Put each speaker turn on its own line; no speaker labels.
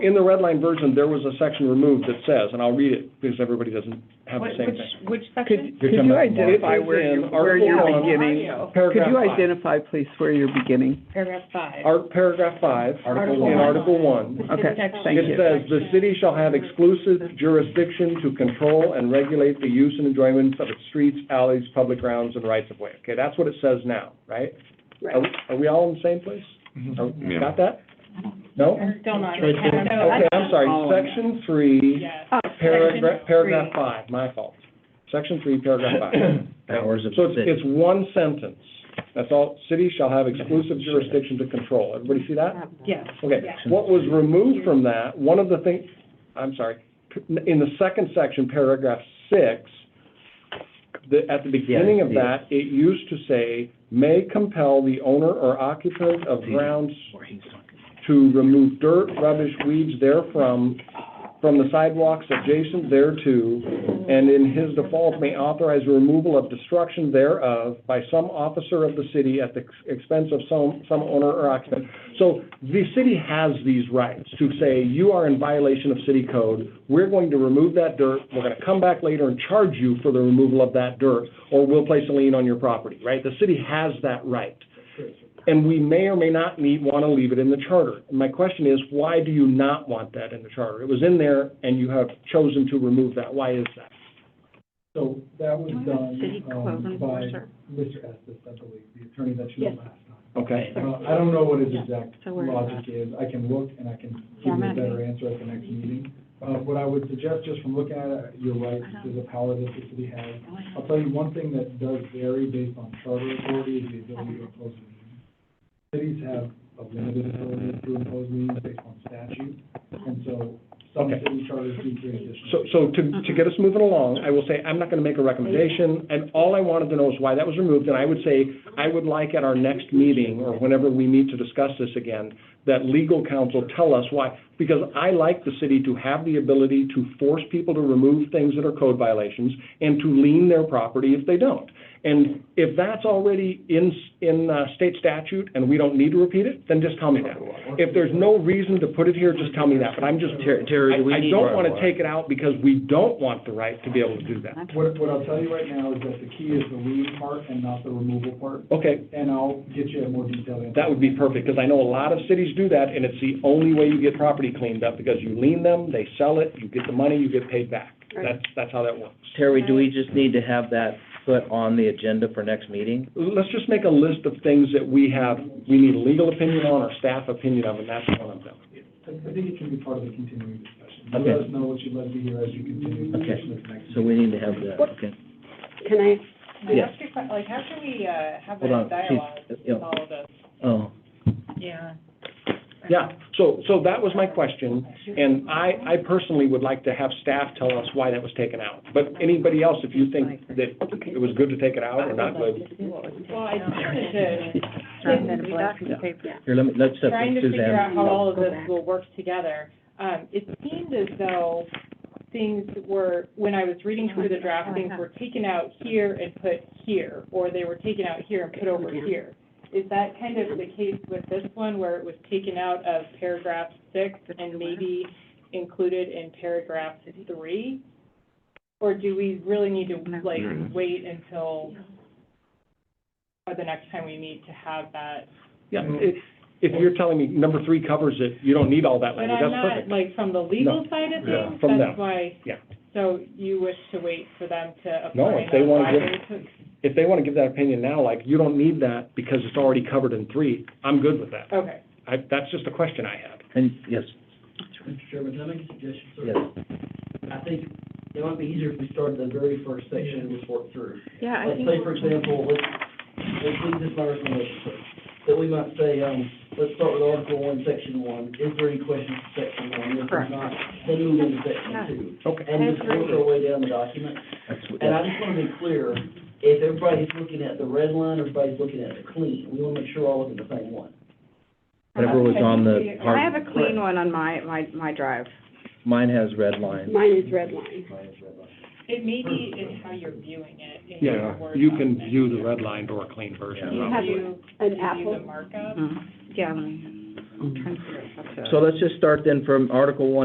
In the red line version, there was a section removed that says, and I'll read it because everybody doesn't have the
What-
same
Which,
thing.
which
Could,
section?
could
You're talking
you
about
identify
markers
where
in
you, where you're
Article one.
beginning?
Audio.
Could
Paragraph
you
five.
identify, please, where you're beginning?
Paragraph five.
Our paragraph five,
Article
in
one.
Article one,
The
Okay,
city section.
thank you.
It says, "The city shall have exclusive jurisdiction to control and regulate the use and enjoyment of its streets, alleys, public grounds, and rights of way." Okay, that's what it says now, right? Are we- Are we all in the same place? Are-
Oh,
Yeah.
Got that? No?
I'm still not.
It's right there.
No, I-
Okay, I'm sorry,
Oh, yeah.
section three,
Yes.
paragraph,
Section
paragraph
three.
five, my fault. Section three, paragraph five.
Powers of
So
the
it's,
city.
it's one sentence. That's all, city shall have exclusive jurisdiction to control. Everybody see that?
Yes.
Okay,
Yeah.
what was removed from that, one of the things, I'm sorry, in the second section, paragraph six, the, at the beginning of
Yeah, I
that, it used to say, "May compel the owner or occupant of grounds
Or he's talking.
to remove dirt, rubbish, weeds therefrom, from the sidewalks adjacent thereto, and in his default may authorize the removal of destruction thereof by some officer of the city at the expense of some, some owner or occupant. So the city has these rights to say, you are in violation of city code, we're going to remove that dirt, we're gonna come back later and charge you for the removal of that dirt, or we'll place a lien on your property, right? The city has that right and we may or may not need, want to leave it in the charter. And My question is, why do you not want that in the charter? It was in there, and you have chosen to remove that. Why is that?
So that was
City
done
code
um, by
enforcer.
Mr. Estes, I believe, the attorney that you
Yes.
had last time.
Okay.
Uh, I don't know what his exact
So we're-
logic is. I can look and I can give you a
Format.
better answer at the next meeting. Uh, What I would suggest, just from looking at it, you're right, there's a power that the city has. I'll tell you one thing that does vary based on charter authority is the ability to impose liens. Cities have a limited ability to impose liens based on statute, and so some
Okay.
city charters do create additional.
So, so to, to get us moving along, I will say, I'm not going to make a recommendation, and all I wanted to know is why that was removed, and I would say, I would like at our next meeting, or whenever we meet to discuss this again, that legal counsel tell us why, because I like the city to have the ability to force people to remove things that are code violations, and to lien their property if they don't. And if that's already in, in uh, state statute, and we don't need to repeat it, then just tell me that. If there's no reason to put it here, just tell me that, but I'm just,
Terry- Terry, do we
I-
need-
I don't want to take it out because we don't want the right to be able to do that.
What, what I'll tell you right now is that the key is the lien part and not the removal part,
Okay,
and I'll get you a more detailed answer.
that would be perfect, because I know a lot of cities do that, and it's the only way you get property cleaned up, because you lien them, they sell it, you get the money, you get paid back. That's, that's how that works.
Terry, do we just need to have that put on the agenda for next meeting?
Let's just make a list of things that we have, we need a legal opinion on or staff opinion of, and that's one of them.
I I think it can be part of the continuing discussion. You Let
Okay.
us know what you'd like to hear as you continue the
Okay.
discussion at the next.
So we need to have that, okay.
Can I,
I
Yeah.
ask you a que- Like, how can we, uh, have
Hold
that
on,
dialogue
uh,
she's, you
with
know,
all of us?
oh,
Yeah.
Yeah, so, so that was my question, and I, I personally would like to have staff tell us why that was taken out. But anybody else, if you think that it was good to take it out or not good,
Well, I just wanted to,
turn that black piece of paper?
here, let me, let's
trying
separate
to figure
Suzanne.
out how all of
Go
this
back.
will work together. Um, it seemed as though things were, when I was reading through the draft, things were taken out here and put here, or they were taken out here and put over here. Is that kind of the case with this one, where it was taken out of paragraph six and maybe included in paragraph three? Or do we really need to, like, wait until, or the next time we meet to have that
yeah, if, if you're telling me number three covers it, you don't need all that
But
language,
I'm
that's
not,
perfect.
like, from the legal side of
Yeah,
things,
from them.
that's why.
Yeah.
So you wish to wait for them to apply?
No, if they
that's
wanna
why
give-
they took-
If they want to give that opinion now, like, you don't need that because it's already covered in three, I'm good with that.
Okay,
I, that's just a question I had.
And, yes,
Mr. Chairman, can I make a suggestion, sir?
yes.
I think it might be easier if we start at the very first section and just work through.
yeah, I
Let's
think.
say, for example, let's, let's leave this by recommendation, sir, that we might say, um, let's start with Article One, Section One, is there any questions to Section One? If there's
Correct.
not, then move into Section Two.
Okay.
And just work our way down the document.
That's what-
And I just want to be clear, if everybody's looking at the red line, everybody's looking at the clean, we want to make sure we're all looking at the same one.
Whatever was on the,
I have a
hard-
clean one on my, my, my drive.
mine has red line.
Mine is red line.
it may be in how you're viewing it, in your
Yeah,
Word
you can
document.
view the redlined or a clean version.
You
of it.
have
Do you
an
do the
apple.
Mm-hmm.
markup?
Mhm. Yeah. let me- I'm trying to figure out how to-
So let's just start then from Article one.